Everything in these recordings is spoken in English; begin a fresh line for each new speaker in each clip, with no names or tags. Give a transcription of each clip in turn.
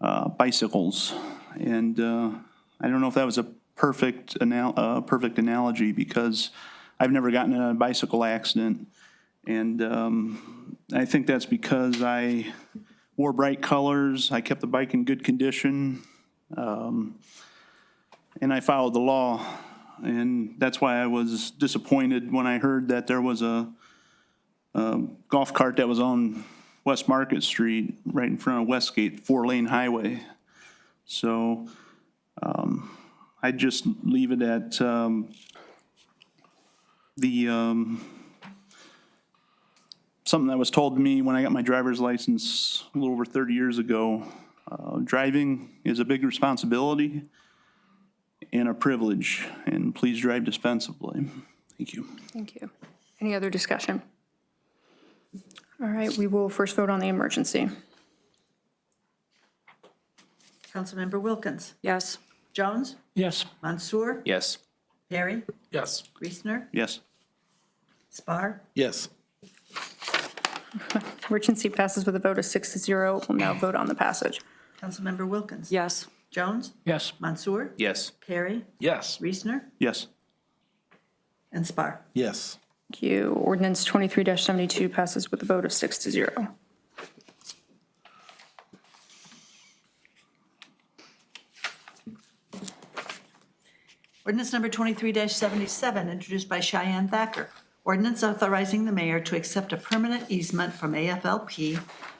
uh, bicycles. And uh, I don't know if that was a perfect, anal- uh, perfect analogy because I've never gotten in a bicycle accident. And um, I think that's because I wore bright colors, I kept the bike in good condition, um, and I followed the law. And that's why I was disappointed when I heard that there was a um, golf cart that was on West Market Street, right in front of Westgate, four-lane highway. So um, I'd just leave it at um, the, um, something that was told to me when I got my driver's license a little over 30 years ago. Uh, Driving is a big responsibility and a privilege, and please drive dispensably. Thank you.
Thank you. Any other discussion? All right, we will first vote on the emergency.
Councilmember Wilkins.
Yes.
Jones.
Yes.
Mansour.
Yes.
Perry.
Yes.
Reesner.
Yes.
Spar.
Yes.
Emergency passes with a vote of six to zero. We'll now vote on the passage.
Councilmember Wilkins.
Yes.
Jones.
Yes.
Mansour.
Yes.
Perry.
Yes.
Reesner.
Yes.
And Spar.
Yes.
Thank you. Ordinance 23-72 passes with a vote of six to zero.
Ordinance number 23-77, introduced by Cheyenne Thacker. Ordinance authorizing the mayor to accept a permanent easement from AFLP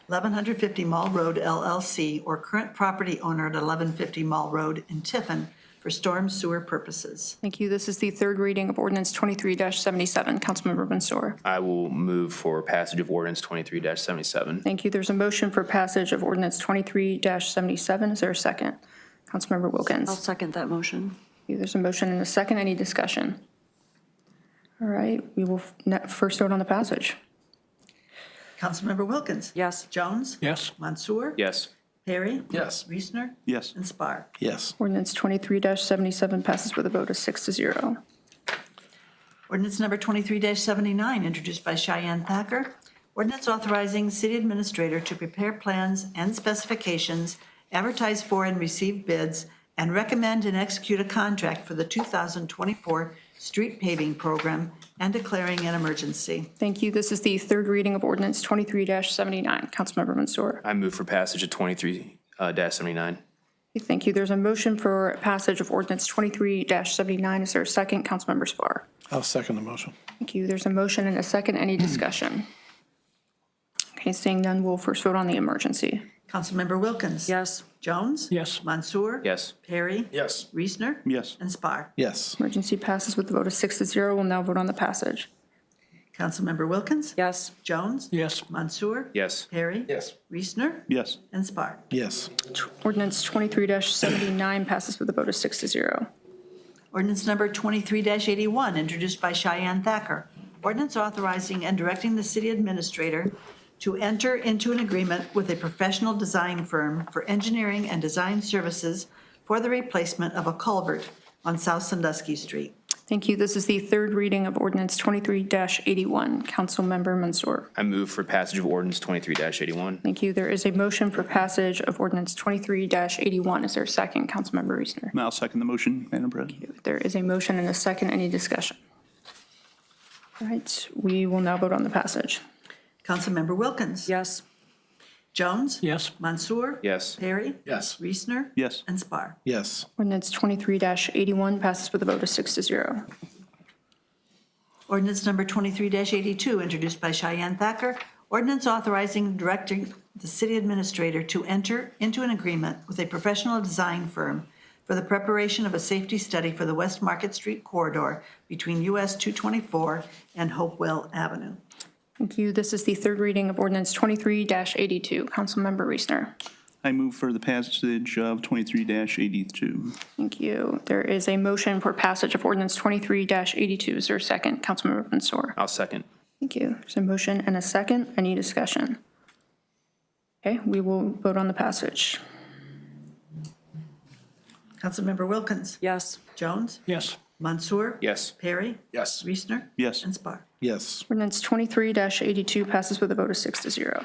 1150 Mall Road LLC or current property owner at 1150 Mall Road in Tiffin for storm sewer purposes.
Thank you. This is the third reading of ordinance 23-77. Councilmember Mansour.
I will move for passage of ordinance twenty-three seventy-seven.
Thank you. There's a motion for passage of ordinance 23-77. Is there a second? Councilmember Wilkins.
I'll second that motion.
Thank you. There's a motion and a second. Any discussion? All right, we will f- ne- first vote on the passage.
Councilmember Wilkins.
Yes.
Jones.
Yes.
Mansour.
Yes.
Perry.
Yes.
Reesner.
Yes.
And Spar.
Yes.
Ordinance 23-77 passes with a vote of six to zero.
Ordinance number 23-79, introduced by Cheyenne Thacker. Ordinance authorizing city administrator to prepare plans and specifications, advertise for and receive bids, and recommend and execute a contract for the 2024 street paving program and declaring an emergency.
Thank you. This is the third reading of ordinance 23-79. Councilmember Mansour.
I move for passage of twenty-three uh, seventy-nine.
Thank you. There's a motion for passage of ordinance 23-79. Is there a second? Councilmember Spar.
I'll second the motion.
Thank you. There's a motion and a second. Any discussion? Okay, seeing none, we'll first vote on the emergency.
Councilmember Wilkins.
Yes.
Jones.
Yes.
Mansour.
Yes.
Perry.
Yes.
Reesner.
Yes.
And Spar.
Yes.
Emergency passes with a vote of six to zero. We'll now vote on the passage.
Councilmember Wilkins.
Yes.
Jones.
Yes.
Mansour.
Yes.
Perry.
Yes.
Reesner.
Yes.
And Spar.
Yes.
Ordinance 23-79 passes with a vote of six to zero.
Ordinance number 23-81, introduced by Cheyenne Thacker. Ordinance authorizing and directing the city administrator to enter into an agreement with a professional design firm for engineering and design services for the replacement of a culvert on South Sandusky Street.
Thank you. This is the third reading of ordinance 23-81. Councilmember Mansour.
I move for passage of ordinance twenty-three eighty-one.
Thank you. There is a motion for passage of ordinance 23-81. Is there a second? Councilmember Reesner.
And I'll second the motion, Madam President.
There is a motion and a second. Any discussion? All right, we will now vote on the passage.
Councilmember Wilkins.
Yes.
Jones.
Yes.
Mansour.
Yes.
Perry.
Yes.
Reesner.
Yes.
And Spar.
Yes.
Ordinance 23-81 passes with a vote of six to zero.
Ordinance number 23-82, introduced by Cheyenne Thacker. Ordinance authorizing and directing the city administrator to enter into an agreement with a professional design firm for the preparation of a safety study for the West Market Street corridor between US 224 and Hopewell Avenue.
Thank you. This is the third reading of ordinance 23-82. Councilmember Reesner.
I move for the passage of 23-82.
Thank you. There is a motion for passage of ordinance 23-82. Is there a second? Councilmember Mansour.
I'll second.
Thank you. There's a motion and a second. Any discussion? Okay, we will vote on the passage.
Councilmember Wilkins.
Yes.
Jones.
Yes.
Mansour.
Yes.
Perry.
Yes.
Reesner.
Yes.
And Spar.
Yes.
Ordinance 23-82 passes with a vote of six to zero.